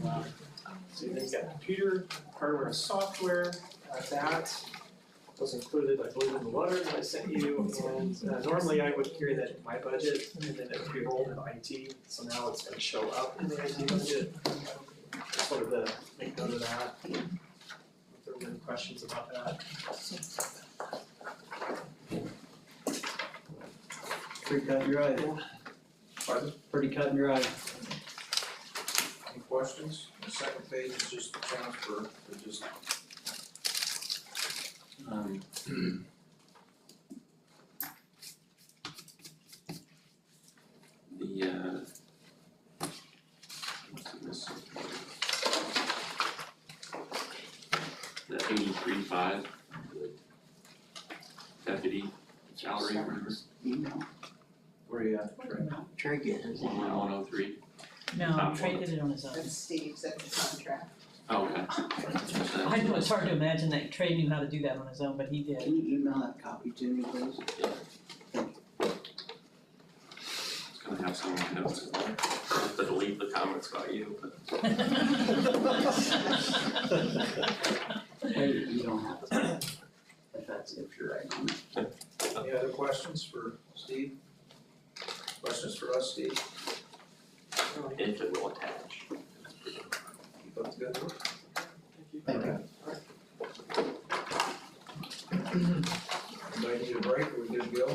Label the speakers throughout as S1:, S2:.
S1: Wow. So then you've got computer, hardware and software, uh, that was included, I believe, in the letter that I sent you. And uh, normally I would carry that in my budget and then it would be rolled in IT, so now it's gonna show up in the IT budget. Just wanted to make note of that. If there were any questions about that.
S2: Pretty cut and dry. Pardon? Pretty cut and dry.
S3: Any questions? The second page is just the transfer, it just,
S2: Um, The, uh.
S4: uh,
S2: what's it missing?
S4: That eighty-three five. Deputy salary, remember,
S5: Email,
S3: where you at?
S5: Trey get his
S4: one one
S5: email.
S4: one oh three.
S6: No,
S4: Um,
S6: Trey did it on his own.
S7: That's Steve's, that's the contract.
S4: Oh, okay.
S6: I know it's hard to imagine that Trey knew how to do that on his own, but he did.
S5: Can you email that copy to me, please?
S4: It's gonna have some notes in there. I'll have to delete the comments about you, but
S5: Hey, you don't have to. If that's, if you're right on it.
S3: Any other questions for Steve? Questions for us, Steve?
S4: if it will attach.
S3: Keep up the good work.
S5: Thank you.
S3: Anybody need a break, Are we good to go?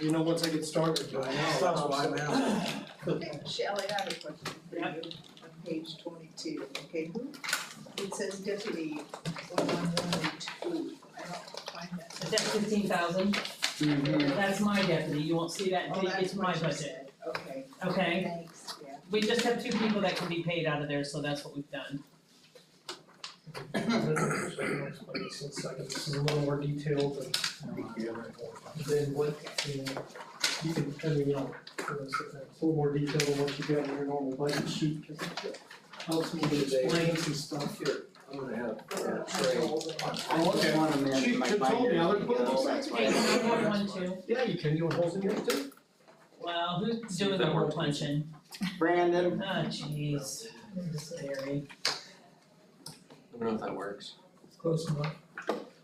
S1: You know, once I get started,
S3: I know, that's why I'm asking.
S7: Shelley, oh, I have a question for you. On page twenty-two, okay, who, it says deputy one one one two, I don't find that.
S6: Is that fifteen thousand? That's my deputy, you won't see that
S7: Oh,
S6: until it's
S7: that's
S6: my
S7: what you
S6: budget,
S7: said, okay,
S6: okay?
S7: thanks, yeah.
S6: We just have two people that can be paid out of there, so that's what we've done.
S1: Since I can, this is a little more detailed than. Then what, you know, you can, kind of, you know, uh, it's a little more detailed than what you got in your normal budget sheet, cause it helps me to explain some stuff here.
S3: I'm gonna have, uh,
S7: I
S3: Trey,
S7: know, but-
S5: I just wanna
S1: She-
S5: manage my
S1: she told me, I
S5: binder,
S1: would put
S5: you
S1: it
S5: know,
S1: aside.
S5: that's why.
S6: Page
S5: I-
S6: one one one two,
S1: Yeah, you can, you want holes in yours too?
S6: well, who's
S4: See if
S6: doing the
S4: that
S6: hole
S4: works.
S6: punching? Ah,
S5: Brandon,
S6: jeez, this is scary.
S4: I don't know if that works.
S1: It's close enough.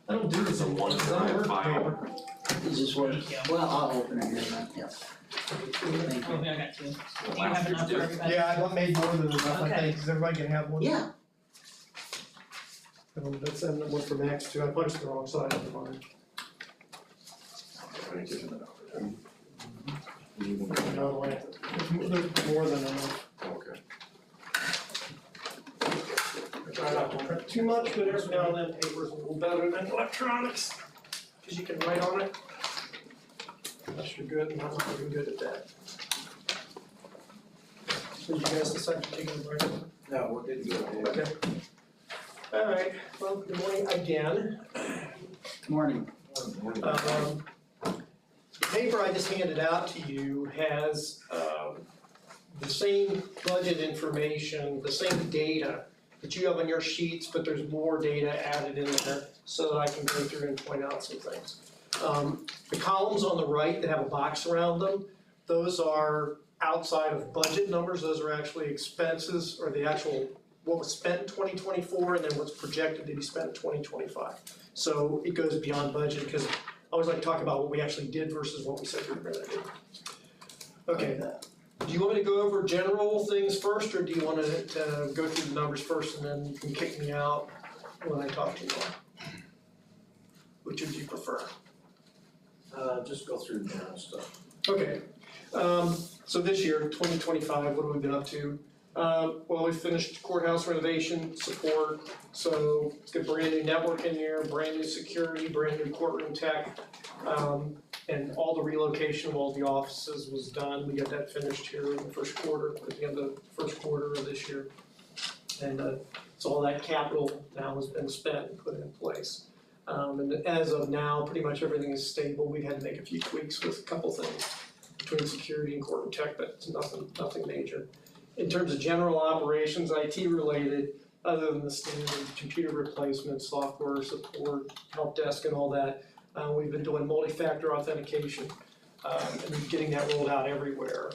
S1: I don't do this.
S4: It's a one
S1: Does that work?
S4: file.
S5: is this
S6: There
S5: what,
S6: you go.
S5: well, I'll open it here, then, yeah. Thank you.
S6: Okay, Oh, I got two. Do
S4: The
S6: you have
S4: last
S6: enough
S4: year's
S6: for
S4: due.
S6: everybody?
S1: Yeah, I made more than enough, I
S6: Okay.
S1: think, cause everybody can have one.
S5: Yeah,
S1: Um, that's, and one for Max too, I punched the wrong side of the line. No, wait, there's there's more than enough. Try not to print too much, but every now and then paper's a little better than electronics, cause you can write on it. Unless you're good, and I'm not even good at that. So you guys decide to take a break?
S3: no, we're good to go.
S1: Okay. All right, well, good morning again.
S5: morning.
S1: Um, The paper I just handed out to you has um, the same budget information, the same data that you have on your sheets, but there's more data added in there so that I can go through and point out some things. Um, The columns on the right that have a box around them, those are outside of budget numbers, those are actually expenses or the actual, what was spent in twenty twenty-four and then what's projected to be spent in twenty twenty-five. So it goes beyond budget because I always like to talk about what we actually did versus what we said we were gonna do. Okay, do you want me to go over general things first or do you wanna uh go through the numbers first and then you can kick me out when I talk to you? Which would you prefer?
S3: Uh, just go through the general stuff.
S1: Okay, um, so this year, twenty twenty-five, what have we been up to? Uh, well, we finished courthouse renovation support, so it's got brand new network in there, brand new security, brand new courtroom tech. Um, and all the relocation of all the offices was done, we got that finished here in the first quarter, at the end of the first quarter of this year. And, uh, so all that capital now has been spent and put in place. Um, and as of now, pretty much everything is stable. We had to make a few tweaks with a couple things between security and court and tech, but it's nothing, nothing major. In terms of general operations, IT related, other than the standard computer replacement, software support, help desk and all that, uh, we've been doing multi-factor authentication, um, and getting that rolled out everywhere.